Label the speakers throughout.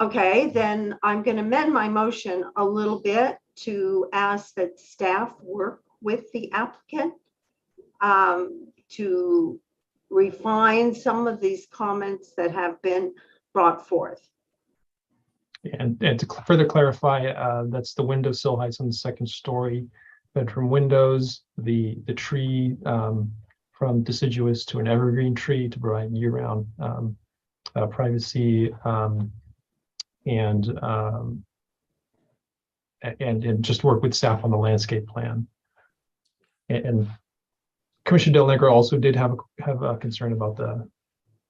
Speaker 1: Okay, then I'm going to amend my motion a little bit to ask that staff work with the applicant um, to refine some of these comments that have been brought forth.
Speaker 2: And, and to cl- further clarify, uh, that's the window sill heights on the second story, bedroom windows, the, the tree, um, from deciduous to an evergreen tree to provide year-round, um, uh, privacy, um, and, um, a- and, and just work with staff on the landscape plan. A- And, Commissioner Del Negro also did have, a- have a concern about the. um,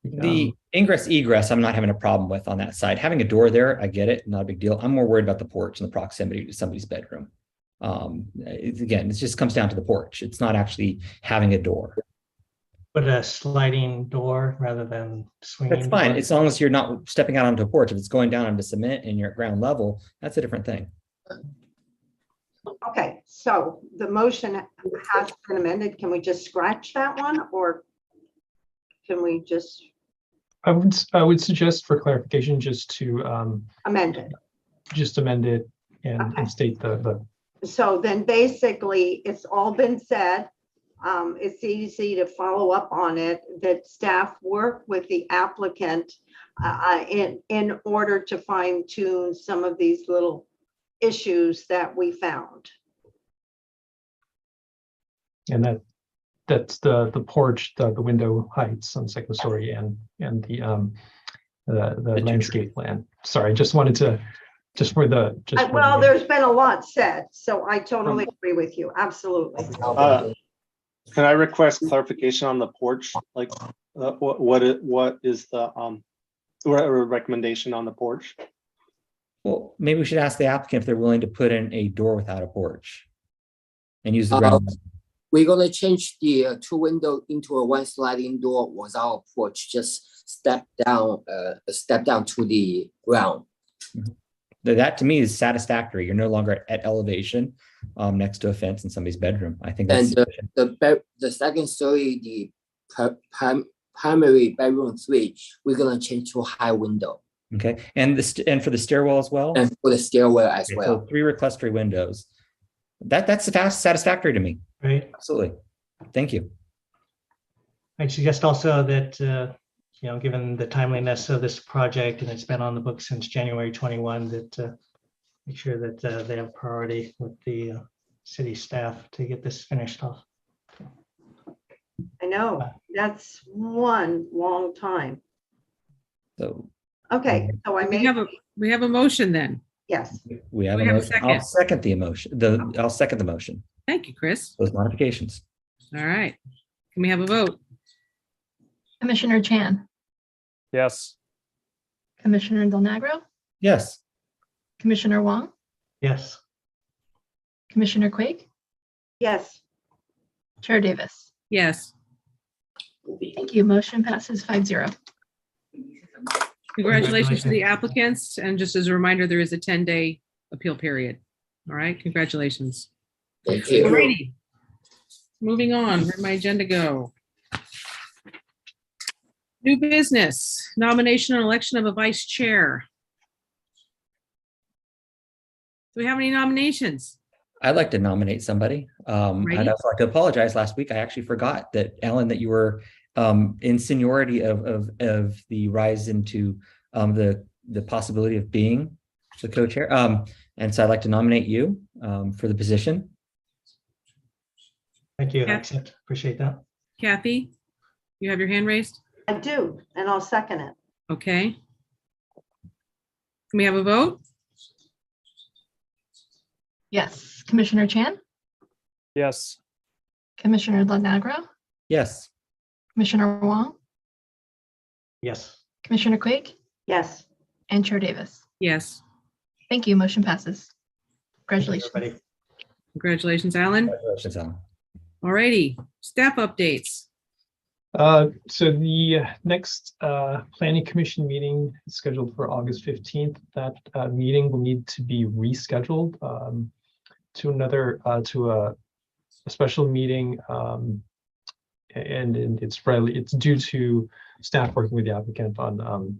Speaker 3: The
Speaker 4: Um,
Speaker 3: ingress egress, I'm not having a problem with on that side. Having a door there, I get it, not a big deal. I'm more worried about the porch and the proximity to somebody's bedroom. Um, it's again, it just comes down to the porch. It's not actually having a door.
Speaker 5: But a sliding door rather than swinging.
Speaker 3: That's fine,
Speaker 5: door.
Speaker 3: as long as you're not stepping out onto a porch. If it's going down onto cement and you're at ground level, that's a different thing.
Speaker 1: Okay, so the motion has been amended. Can we just scratch that one or can we just
Speaker 2: I would, s- I would suggest for clarification, just to, um,
Speaker 1: amend it?
Speaker 2: just amend it and and
Speaker 1: Okay.
Speaker 2: state the, the,
Speaker 1: So then basically, it's all been said. Um, it's easy to follow up on it, that staff work with the applicant uh, in, in order to fine tune some of these little issues that we found.
Speaker 2: and that, that's the, the porch, the, the window heights on second story and, and the, um, the,
Speaker 3: The
Speaker 2: the
Speaker 3: two
Speaker 2: landscape plan. Sorry, just wanted to, just for the, just.
Speaker 1: Uh,
Speaker 2: for
Speaker 1: Well,
Speaker 2: the-
Speaker 1: there's been a lot said, so I totally agree with you, absolutely.
Speaker 6: Uh, Can I request clarification on the porch? Like, uh, what, what, i- what is the, um, re- re- recommendation on the porch?
Speaker 3: Well, maybe we should ask the applicant if they're willing to put in a door without a porch. And use the ground.
Speaker 4: Uh, We're gonna change the uh, two window into a one sliding door with our porch, just step down, uh, step down to the ground.
Speaker 3: Th- That to me is satisfactory. You're no longer at elevation, um, next to a fence in somebody's bedroom. I think that's.
Speaker 4: And, uh, The bed, the second story, the pri- prim- primary bedroom three, we're gonna change to high window
Speaker 3: Okay, and this, and for the stairwell as well?
Speaker 4: and for the stairwell as
Speaker 3: Okay, so
Speaker 4: well.
Speaker 3: Three reclustery windows. That, that's fast satisfactory to me.
Speaker 5: Right.
Speaker 3: Absolutely. Thank you.
Speaker 5: I suggest also that, uh, you know, given the timeliness of this project and it's been on the book since January 21, that uh, make sure that uh, they have priority with the uh, city staff to get this finished off.
Speaker 1: I know, that's one long time.
Speaker 3: So
Speaker 1: Okay, so I
Speaker 7: We
Speaker 1: made,
Speaker 7: have a, we have a motion then.
Speaker 1: yes,
Speaker 3: we have a
Speaker 7: We have a
Speaker 3: motion. I'll
Speaker 7: second.
Speaker 3: second the emotion, the, I'll second the motion,
Speaker 7: Thank you, Chris.
Speaker 3: those modifications.
Speaker 7: All right. Can we have a vote?
Speaker 8: Commissioner Chan,
Speaker 9: Yes.
Speaker 8: Commissioner Del Negro,
Speaker 3: Yes,
Speaker 8: Commissioner Wong,
Speaker 5: Yes,
Speaker 8: Commissioner Quake,
Speaker 1: yes,
Speaker 8: Chair Davis.
Speaker 7: Yes.
Speaker 8: Thank you. Motion passes five zero.
Speaker 7: Congratulations to the applicants. And just as a reminder, there is a 10-day appeal period. All right, congratulations.
Speaker 4: Thank
Speaker 7: All
Speaker 4: you.
Speaker 7: righty. Moving on, where'd my agenda go? New business, nomination and election of a vice chair. Do we have any nominations?
Speaker 3: I'd like to nominate somebody. Um,
Speaker 7: Right.
Speaker 3: and I'd also like to apologize. Last week, I actually forgot that, Alan, that you were, um, in seniority of, of, of the rise into, um, the, the possibility of being the co-chair. Um, and so I'd like to nominate you, um, for the position.
Speaker 5: thank you. I
Speaker 7: Yeah.
Speaker 5: Accept, appreciate that.
Speaker 7: Kathy, you have your hand raised?
Speaker 1: I do, and I'll second it.
Speaker 7: Okay. Can we have a vote?
Speaker 8: Yes. Commissioner Chan,
Speaker 9: Yes.
Speaker 8: Commissioner Del Negro,
Speaker 3: Yes.
Speaker 8: Commissioner Wong,
Speaker 5: Yes,
Speaker 8: Commissioner Quake,
Speaker 1: Yes.
Speaker 8: and Chair Davis.
Speaker 7: Yes.
Speaker 8: Thank you. Motion passes.
Speaker 5: Thank you,
Speaker 8: Congratulations.
Speaker 5: everybody.
Speaker 7: Congratulations, Alan.
Speaker 3: Congratulations, Alan.
Speaker 7: Alrighty, staff updates.
Speaker 2: Uh, so the uh, next, uh, planning commission meeting is scheduled for August fifteenth. That, uh, meeting will need to be rescheduled, um, to another, uh, to a, a special meeting, um, a- and, and it's probably, it's due to staff working with the applicant on, um,